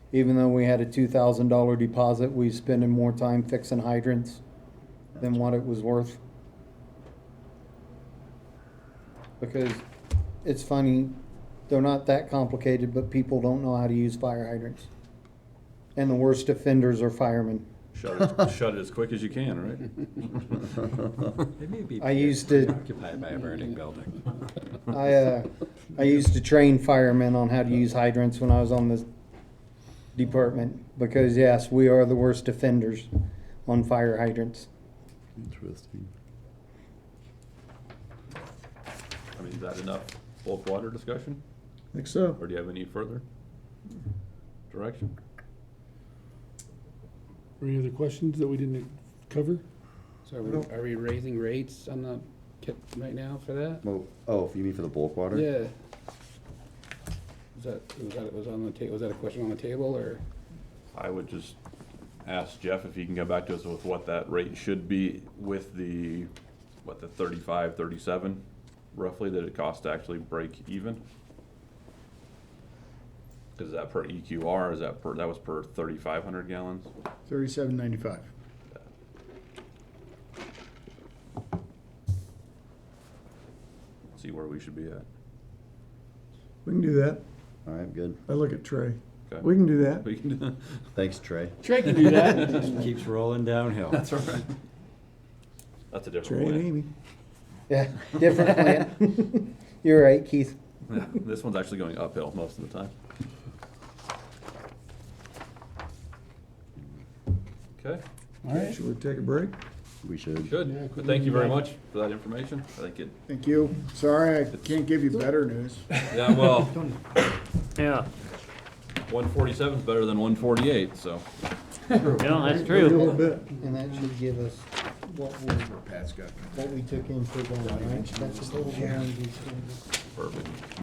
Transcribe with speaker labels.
Speaker 1: Even though we had a two thousand dollar deposit, we spending more time fixing hydrants than what it was worth. Because it's funny, they're not that complicated, but people don't know how to use fire hydrants. And the worst offenders are firemen.
Speaker 2: Shut it, shut it as quick as you can, right?
Speaker 3: They may be
Speaker 1: I used to,
Speaker 3: occupied by a burning building.
Speaker 1: I, uh, I used to train firemen on how to use hydrants when I was on the department, because yes, we are the worst offenders on fire hydrants.
Speaker 4: Interesting.
Speaker 2: I mean, is that enough bulk water discussion,
Speaker 4: Think so.
Speaker 2: or do you have any further direction?
Speaker 5: Or Any other questions that we didn't cover?
Speaker 6: So are we, are we raising rates on the, kit right now for that?
Speaker 4: Well, oh, if you mean for the bulk water?
Speaker 6: Yeah. Was that, was that, was on the ta, was that a question on the table, or?
Speaker 2: I would just ask Jeff if he can come back to us with what that rate should be with the, what, the thirty-five, thirty-seven roughly that it costs to actually break even? Is that per EQR, is that per, that was per thirty-five hundred gallons?
Speaker 7: Thirty-seven ninety-five.
Speaker 2: See where we should be at.
Speaker 7: We can do that.
Speaker 4: All right, good.
Speaker 7: I look at Trey.
Speaker 2: Okay.
Speaker 7: We can do that.
Speaker 2: We can,
Speaker 4: Thanks, Trey.
Speaker 6: Trey can do that.
Speaker 3: Keeps rolling downhill.
Speaker 2: that's all right. That's a
Speaker 7: Trey
Speaker 2: different
Speaker 7: and
Speaker 2: plan.
Speaker 7: Amy.
Speaker 1: Yeah, different plan. You're right, Keith.
Speaker 2: Yeah, This one's actually going uphill most of the time. Okay.
Speaker 6: All right.
Speaker 7: Should we take a break?
Speaker 4: We should.
Speaker 2: Good.
Speaker 5: Yeah,
Speaker 2: Well, Thank you very
Speaker 5: good.
Speaker 2: much for that information. I think it,
Speaker 7: Thank you. Sorry, I can't give you better news.
Speaker 2: yeah, well. Yeah. One forty-seven is better than one forty-eight, so.
Speaker 8: No, that's
Speaker 7: A little
Speaker 8: true.
Speaker 7: bit.
Speaker 1: And that should give us what we,
Speaker 7: Pat's got.
Speaker 1: what we took in for going, right? That's a total guarantee.
Speaker 2: Perfect.